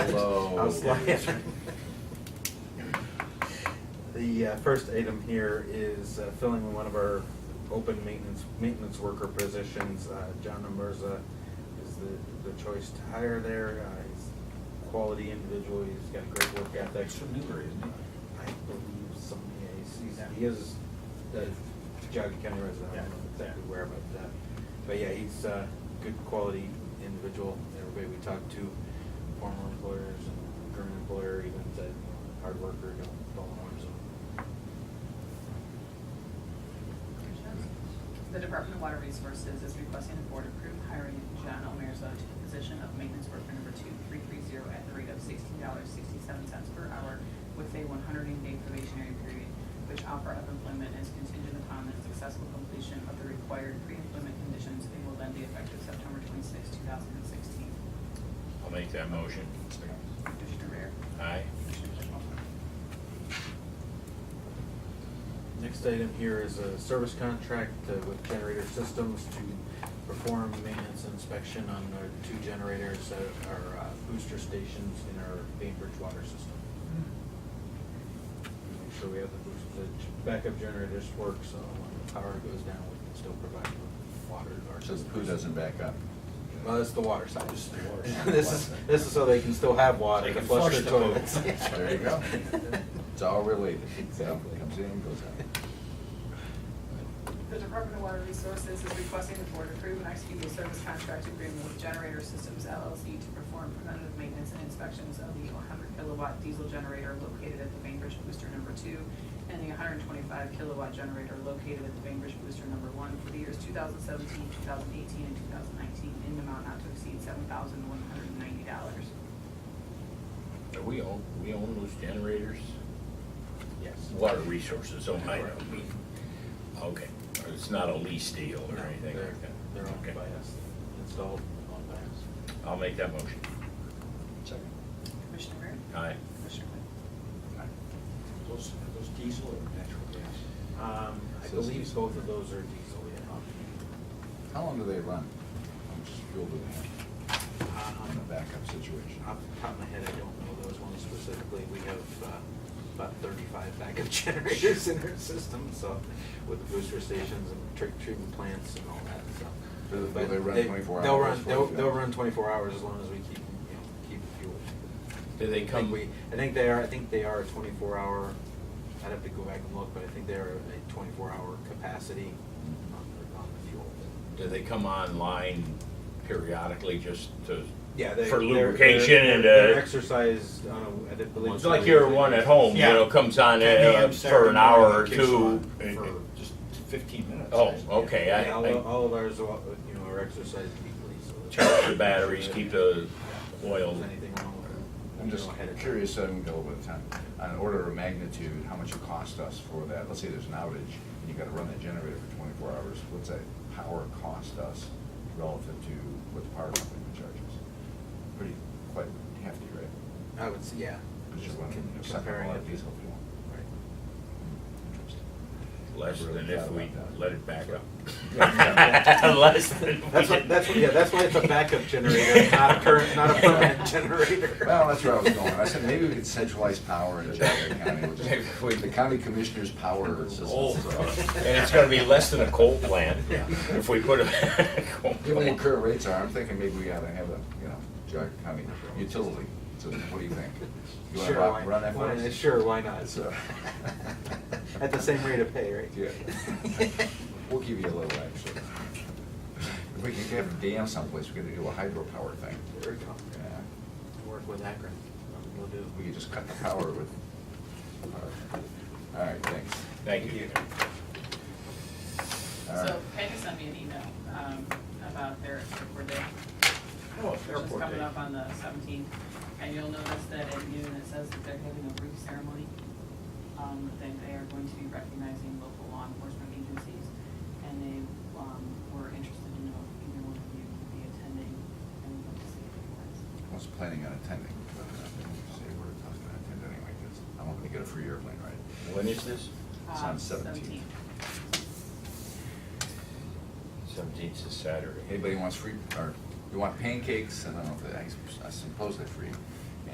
was like. The uh, first item here is uh, filling one of our open maintenance, maintenance worker positions. Uh, John Amerza is the, the choice to hire there. Uh, He's a quality individual, he's got great work ethic. That's from Newbury, isn't it? I believe some, yeah, he's, he's, he is the Geauga County resident, I don't know exactly where, but, uh, but yeah, he's a good quality individual, everybody we talked to, former employers and current employer, even said, you know, hard worker, don't, don't want him. The Department of Water Resources is requesting the board approve hiring John Omerzo to the position of maintenance worker number two three three zero at the rate of sixteen dollars sixty-seven cents per hour with a one hundred and eight day probationary period, which offer of employment is contingent upon the successful completion of the required pre-employment conditions and will then be effective September twenty-sixth, two thousand and sixteen. I'll make that motion. Commissioner Rea? Aye. Commissioner Mitchell? Next item here is a service contract uh, with Generator Systems to perform maintenance inspection on our two generators that are uh, booster stations in our Bainbridge water system. Make sure we have the boost, the ch- backup generators work, so when the power goes down, we can still provide the water to our So system. the poo doesn't back up. Well, that's the water side. This is the water side. This is, this is so they can still have water They to can flush their flush the poo. toilets. There you go. It's all related. Exactly. Comes in, goes out. The Department of Water Resources is requesting the board approve and execute a service contract agreement with Generator Systems LLC to perform preventative maintenance and inspections of the 100 kilowatt diesel generator located at the Bainbridge Booster Number Two and the 125 kilowatt generator located at the Bainbridge Booster Number One for the years 2017, 2018, and 2019 in an amount not to exceed $7,190. Are we own, we own those generators? Yes. Water resources, oh, I know. Okay, it's not a lease deal or No, anything they're- like that? They're Okay. owned by us, installed and owned by us. I'll make that motion. Commissioner Rea? Aye. Commissioner White? Those, are those diesel or natural gas? Um, I So it's believe diesel. both of those are diesel, yeah. How long do they run? How much fuel do they have in a Um, backup situation? Uh, Off the top of my head, I don't know those ones specifically. We have uh, about thirty-five backup generators in our system, so, with the booster stations and tr- treatment plants and all that, so. Do they- But will they run 24 They'll hours, run, they'll, 48 they'll hours? run twenty-four hours as long as we keep, you know, keep the fuel. Do they I think come- we- I think they are, I think they are a twenty-four hour, I'd have to go back and look, but I think they are a twenty-four hour capacity on the, on the fuel. Do they come online periodically just to? Yeah, they. For they're- they're- lubrication and, They're uh, exercised on a, I believe. it's like your one at home, you Yeah. know, comes on 10 uh, a.m. for Saturday an hour or morning, kicks two. on For just fifteen minutes. Oh, okay, I- Yeah, all, I- all of ours, are, you know, are exercised equally, so. it's- Charge the batteries, keep the oil. If there's anything wrong with it. I'm just you know, ahead of time. curious, I haven't got a little bit of time, on an order of magnitude, how much it cost us for that? Let's say there's an outage, and you gotta run that generator for twenty-four hours, what's that power cost us relative to what the power company would charge us? Pretty, quite hefty, right? I would say, yeah. Because you're Just running, con- you know, sucking a comparing lot it of to- diesel fuel. Right. Interesting. Less Never really than if thought we about that. let it back up. Yeah. Less than. we That's what, did. that's what, yeah, that's why it's a backup generator, not a current, not a permanent generator. Well, that's where I was going. I said, maybe we could centralize power in Chatham County. We'll Maybe we- just- The county commissioner's power system. uh, Oh, And it's gonna be less than a coal plant if we put a coal Given what plant. current rates are, I'm thinking maybe we ought to have a, you know, Jog County utility. So what do you think? You want to Sure, why- run that for why- us? Sure, why not? So- At the same rate of pay, right? uh, Yeah. We'll give you a little extra. If we can have a dam someplace, we could do a hydropower thing. There we go. Yeah. Work with Akron, we'll do. We could just cut the power with. All right, thanks. Thank you. All right. So Peggy sent me an email um, about their airport day. Oh, it's Which is airport coming day. up on the seventeenth, and you'll notice that at noon, it says that they're having a brief ceremony. Um, that they are going to be recognizing local law enforcement agencies, and they, um, were interested in know if either one of you would be attending, and would love to see if you guys. I was planning on attending, but uh, I didn't say where I was gonna attend anyway, because I'm hoping to get a free airplane ride. When is this? It's Um, Uh, on 17th. Seventeenth is Saturday. Anybody wants free, or you want pancakes, I don't know, if they- I suppose they're free.